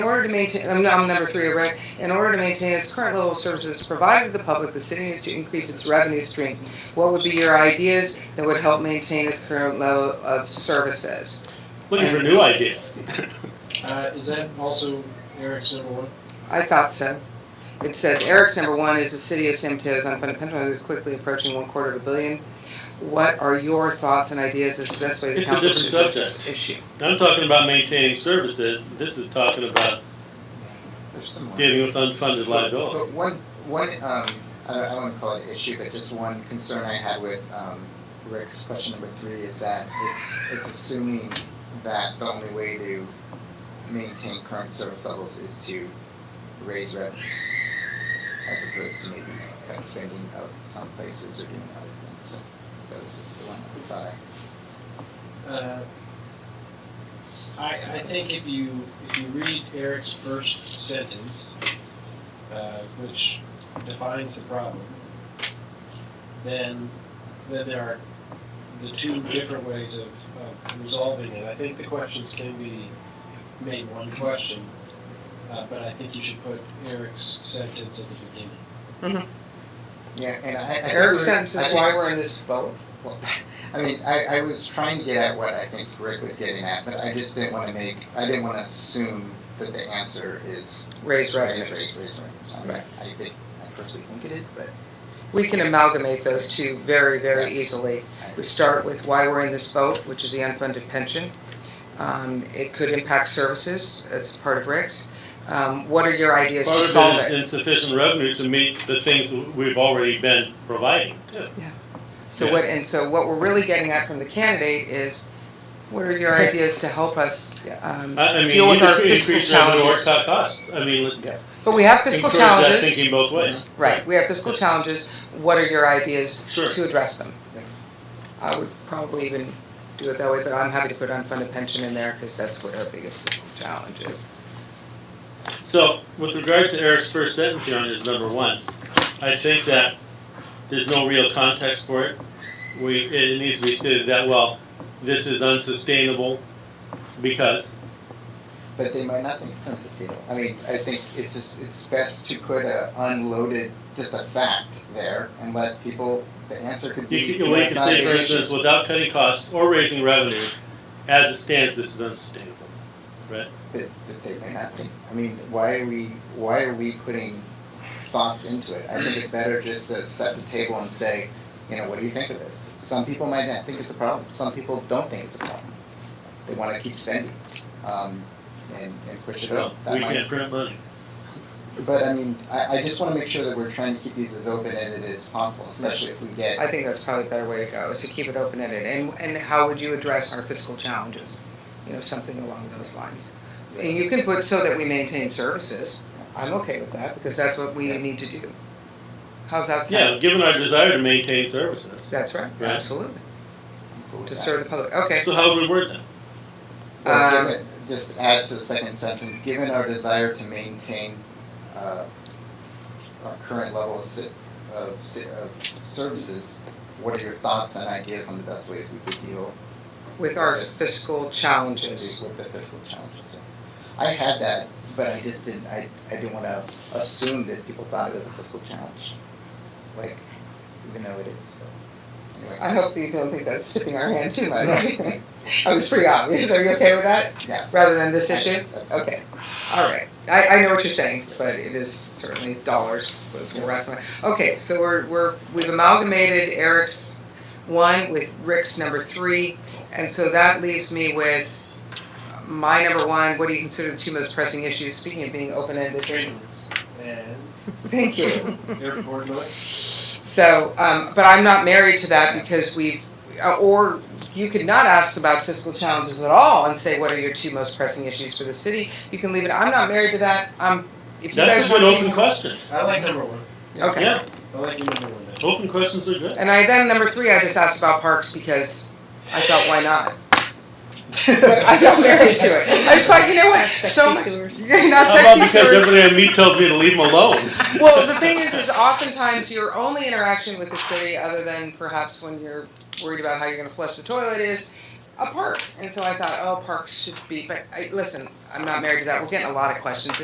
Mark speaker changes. Speaker 1: In order to maintain, I'm, I'm number three, right? In order to maintain its current level of services provided to the public, the city needs to increase its revenue stream. What would be your ideas that would help maintain its current level of services?
Speaker 2: Looking for new ideas.
Speaker 3: Uh, is that also Eric's number one?
Speaker 1: I thought so. It said Eric's number one is the city of San Mateo's unfunded pension liability quickly approaching one quarter of a billion. What are your thoughts and ideas as to the best way the
Speaker 2: It's a
Speaker 1: council should
Speaker 2: different
Speaker 1: address
Speaker 2: subject.
Speaker 1: this issue?
Speaker 2: I'm talking about maintaining services. This is talking about
Speaker 4: There's some.
Speaker 2: dealing with unfunded liability.
Speaker 4: But one, one, um, I don't, I wouldn't call it issue, but just one concern I had with, um, Rick's question number three is that it's, it's assuming that the only way to maintain current service levels is to raise revenues. As opposed to maybe like spending out some places or doing other things, so that was just the one I thought
Speaker 3: Uh,
Speaker 4: I
Speaker 3: I, I think if you, if you read Eric's first sentence, uh, which defines the problem, then, then there are the two different ways of, of resolving it. I think the questions can be made one question, uh, but I think you should put Eric's sentence at the beginning.
Speaker 4: Yeah, and I, I think
Speaker 1: Eric
Speaker 4: we're-
Speaker 1: sense
Speaker 4: I
Speaker 1: is
Speaker 4: think-
Speaker 1: why we're in this boat.
Speaker 4: well, I mean, I, I was trying to get at what I think Rick was getting at, but I just didn't want to make, I didn't want to assume that the answer is
Speaker 1: Raise
Speaker 4: raise,
Speaker 1: revenues.
Speaker 4: raise, raise revenues. I mean,
Speaker 1: Right.
Speaker 4: I think, I personally think it is, but
Speaker 1: We can amalgamate those two very, very
Speaker 4: Yeah.
Speaker 1: easily.
Speaker 4: I.
Speaker 1: We start with why we're in this vote, which is the unfunded pension. Um, it could impact services, it's part of Rick's. Um, what are your ideas to
Speaker 2: Part
Speaker 1: solve
Speaker 2: of it is
Speaker 1: it?
Speaker 2: insufficient revenue to meet the things that we've already been providing too.
Speaker 1: So what, and so what we're really getting at from the candidate is, what are your ideas to help us,
Speaker 4: Yeah.
Speaker 1: um,
Speaker 2: I, I mean,
Speaker 1: deal with
Speaker 2: either
Speaker 1: our
Speaker 2: could
Speaker 1: fiscal
Speaker 2: increase revenue or
Speaker 1: challenges?
Speaker 2: cut costs. I mean, let's
Speaker 4: Yeah.
Speaker 1: But we have fiscal
Speaker 2: encourage that
Speaker 1: challenges,
Speaker 2: thinking both ways.
Speaker 1: right, we have fiscal challenges, what are your ideas
Speaker 2: Sure.
Speaker 1: to address them?
Speaker 4: Yeah.
Speaker 1: I would probably even do it that way, but I'm happy to put unfunded pension in there, cause that's what our biggest fiscal challenge is.
Speaker 2: So, with regard to Eric's first sentence here on his number one, I think that there's no real context for it. We, it needs to be stated that, well, this is unsustainable because,
Speaker 4: But they might not think it's unsustainable. I mean, I think it's just, it's best to put a unloaded, just a fact there and let people, the answer could be.
Speaker 2: you can, we can
Speaker 4: it's not
Speaker 2: say, for
Speaker 4: an
Speaker 2: instance,
Speaker 4: issue.
Speaker 2: without cutting costs or raising revenues, as it stands, this is unsustainable.
Speaker 4: that, that they may not think. I mean, why are we why are we putting thoughts into it? I think it's better just to set the table and say, you know, what do you think of this? Some people might not think it's a problem. Some people don't think it's a problem. They want to keep spending, um, and, and push it
Speaker 2: Well,
Speaker 4: up. That
Speaker 2: we
Speaker 4: might,
Speaker 2: can't print money.
Speaker 4: but I mean, I, I just want to make sure that we're trying to keep these as open ended as possible, especially if we get
Speaker 1: I think that's probably a better way to go, is to keep it open-ended, and, and how would you address our fiscal challenges? You know, something along those lines. And you can put so that we maintain services, I'm okay with that, because that's what we need to do. How's that sound?
Speaker 2: Yeah, given our desire to maintain services.
Speaker 1: That's right,
Speaker 2: Yeah.
Speaker 1: absolutely, to serve the public, okay,
Speaker 2: So how would we word that?
Speaker 4: Well,
Speaker 1: Um,
Speaker 4: given, just add to the second sentence, given our desire to maintain, uh, our current level of si- of si- of services, what are your thoughts and ideas on the best ways we could deal
Speaker 1: with our fiscal
Speaker 4: with
Speaker 1: challenges,
Speaker 4: with the fiscal challenges? I had that, but I just didn't, I, I didn't wanna assume that people thought it was a fiscal challenge, like, even though it is, but, anyway.
Speaker 1: I hope that you don't think that's tipping our hand too much. I was pretty obvious, are you okay with that,
Speaker 4: Yeah,
Speaker 1: rather than this issue?
Speaker 4: that's-
Speaker 1: Okay, all right. I, I know what you're saying, but it is certainly dollars was more rational. Okay, so we're, we're, we've amalgamated Eric's one with Rick's number three. And so that leaves me with my number one, what do you consider the two most pressing issues, speaking of being open-ended?
Speaker 3: Train routes and
Speaker 1: Thank you.
Speaker 3: airport noise.
Speaker 1: So, um, but I'm not married to that because we've, uh, or you could not ask about fiscal challenges at all and say, what are your two most pressing issues for the city? You can leave it, I'm not married to that, I'm, if you
Speaker 2: That's
Speaker 1: guys
Speaker 2: a good
Speaker 1: want
Speaker 2: open question.
Speaker 3: I like number one.
Speaker 1: Okay.
Speaker 2: Yeah,
Speaker 3: I like your number one. better.
Speaker 2: open questions are good.
Speaker 1: And I then, number three, I just asked about parks because I thought, why not? But I'm not married to it. I just thought, you know what, so,
Speaker 5: Sexy sewers.
Speaker 1: mu- not
Speaker 2: How about
Speaker 1: sexy
Speaker 2: because
Speaker 1: stories.
Speaker 2: everybody I meet tells me to leave them alone?
Speaker 1: Well, the thing is, is oftentimes your only interaction with the city, other than perhaps when you're worried about how you're going to flush the toilet, is a park. And so I thought, oh, parks should be, but I, listen, I'm not married to that. We're getting a lot of questions.